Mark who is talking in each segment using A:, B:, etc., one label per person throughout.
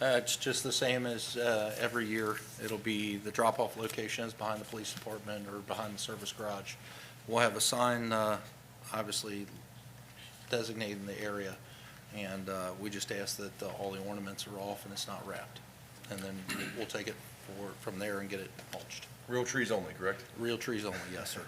A: Uh, It's just the same as uh, every year. It'll be the drop-off locations behind the police department or behind the service garage. We'll have a sign, uh, obviously designating the area, and uh, we just ask that uh, all the ornaments are off and it's not wrapped. And then we'll take it for, from there and get it mulched.
B: Real trees only, correct?
A: Real trees only, yes, sir.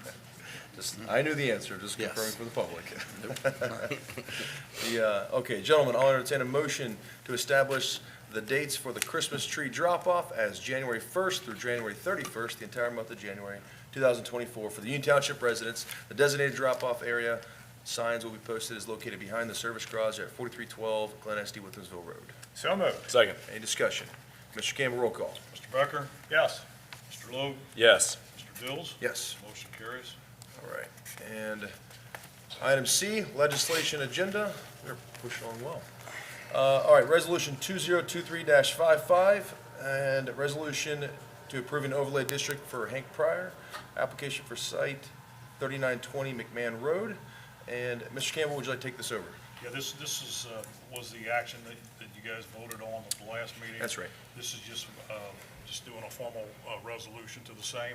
B: Just, I knew the answer, just
A: Yes.
B: confirming for the public. The, uh, okay, gentlemen, I'll entertain a motion to establish the dates for the Christmas tree drop-off as January 1st through January 31st, the entire month of January 2024 for the Union Township residents. The designated drop-off area, signs will be posted, is located behind the service garage at 4312 Glen Estee, Withensville Road.
C: So moved.
D: Second.
B: Any discussion? Mr. Campbell, roll call.
C: Mr. Becker? Yes. Mr. Logue?
D: Yes.
C: Mr. Dills?
B: Yes.
C: Motion carries.
B: All right, and item C, legislation agenda, we're pushing on well. Uh, All right, resolution 2023-55, and resolution to approve an overlay district for Hank Pryor, application for site 3920 McMahon Road. And Mr. Campbell, would you like to take this over?
C: Yeah, this, this is, uh, was the action that, that you guys voted on at the last meeting.
B: That's right.
C: This is just, uh, just doing a formal, uh, resolution to the same.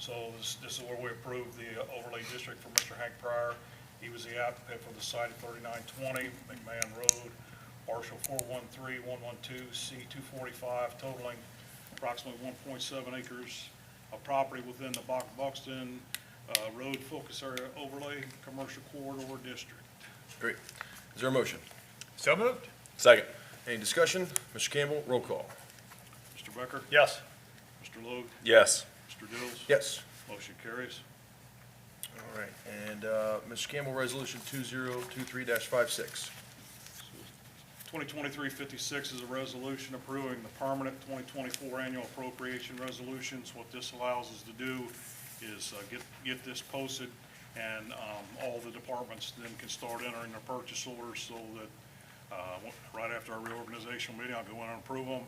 C: So this, this is where we approve the overlay district for Mr. Hank Pryor. He was the applicant for the site at thirty-nine twenty McMahon Road, parcel four one three one one two, C two forty-five, totaling approximately one point seven acres of property within the Buck- Buxton, uh, Road Focus Area Overlay Commercial Corridor District.
B: Great. Is there a motion?
C: So moved.
D: Second.
B: Any discussion? Mr. Campbell, roll call.
C: Mr. Becker?
D: Yes.
C: Mr. Logue?
D: Yes.
C: Mr. Dills?
B: Yes.
C: Motion carries.
B: All right, and uh, Mr. Campbell, resolution 2023-56.
C: 2023-56 is a resolution approving the permanent 2024 annual appropriation resolutions. What this allows us to do is uh, get, get this posted, and um, all the departments then can start entering their purchase orders so that uh, w- right after our reorganization meeting, I'll go in and approve them,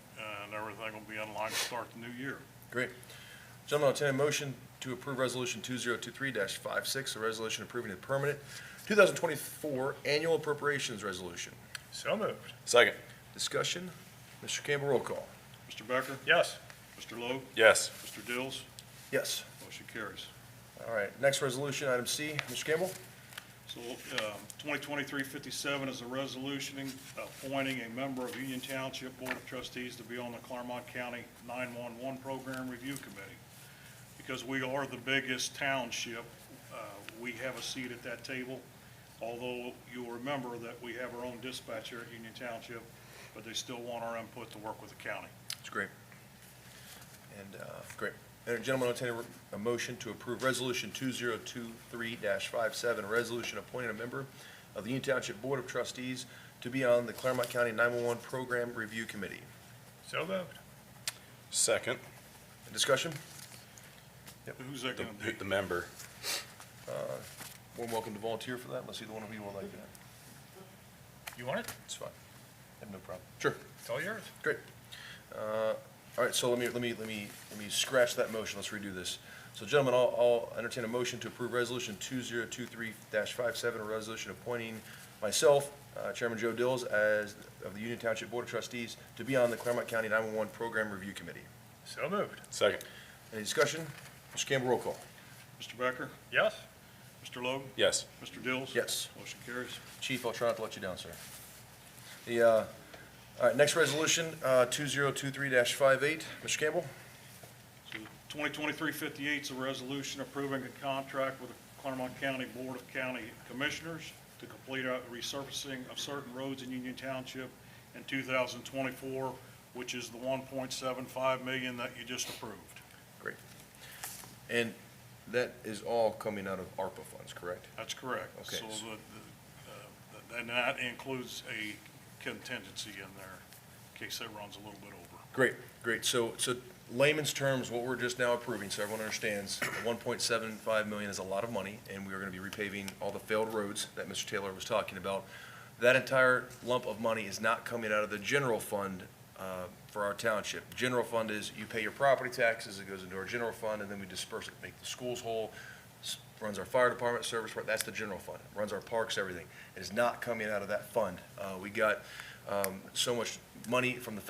C: and everything will be in line to start the new year.
B: Great. Gentlemen, I'll entertain a motion to approve Resolution 2023-56, a resolution approving the permanent 2024 annual appropriations resolution.
C: So moved.
D: Second.
B: Discussion? Mr. Campbell, roll call.
C: Mr. Becker?
D: Yes.
C: Mr. Logue?
D: Yes.
C: Mr. Dills?
B: Yes.
C: Motion carries.
B: All right, next resolution, item C. Mr. Campbell?
C: So um, 2023-57 is a resolution uh, appointing a member of Union Township Board of Trustees to be on the Claremont County 911 Program Review Committee. Because we are the biggest township, uh, we have a seat at that table, although you'll remember that we have our own dispatcher at Union Township, but they still want our input to work with the county.
B: It's great. And, uh, great. And gentlemen, I'll entertain a re- a motion to approve Resolution 2023-57, a resolution appointing a member of the Union Township Board of Trustees to be on the Claremont County 911 Program Review Committee.
C: So moved.
D: Second.
B: Discussion?
C: Who's that
D: The,
C: going to be?
D: the member.
B: More than welcome to volunteer for that, unless either one of you would like that.
C: You want it?
B: It's fine. I have no problem.
C: It's all yours.
B: Great. Uh, All right, so let me, let me, let me, let me scratch that motion. Let's redo this. So gentlemen, I'll, I'll entertain a motion to approve Resolution 2023-57, a resolution appointing myself, uh, Chairman Joe Dills, as, of the Union Township Board of Trustees, to be on the Claremont County 911 Program Review Committee.
C: So moved.
D: Second.
B: Any discussion? Mr. Campbell, roll call.
C: Mr. Becker?
D: Yes.
C: Mr. Logue?
D: Yes.
C: Mr. Dills?
B: Yes.
C: Motion carries.
B: Chief, I'll try not to let you down, sir. The, uh, all right, next resolution, uh, 2023-58. Mr. Campbell?
C: So 2023-58 is a resolution approving a contract with the Claremont County Board of County Commissioners to complete a resurfacing of certain roads in Union Township in 2024, which is the 1.75 million that you just approved.
B: And that is all coming out of ARPA funds, correct?
C: That's correct.
B: Okay.
C: So the- the, uh, and that includes a contingency in there, in case that runs a little bit over.
B: Great, great. So, so layman's terms, what we're just now approving, so everyone understands, one point seven five million is a lot of money, and we are gonna be repaving all the failed roads that Mr. Taylor was talking about. That entire lump of money is not coming out of the general fund, uh, for our township. General fund is, you pay your property taxes, it goes into our general fund, and then we disperse it, make the schools whole, s- runs our fire department, service, department, that's the general fund, runs our parks, everything. It is not coming out of that fund. Uh, we got, um, so much money from the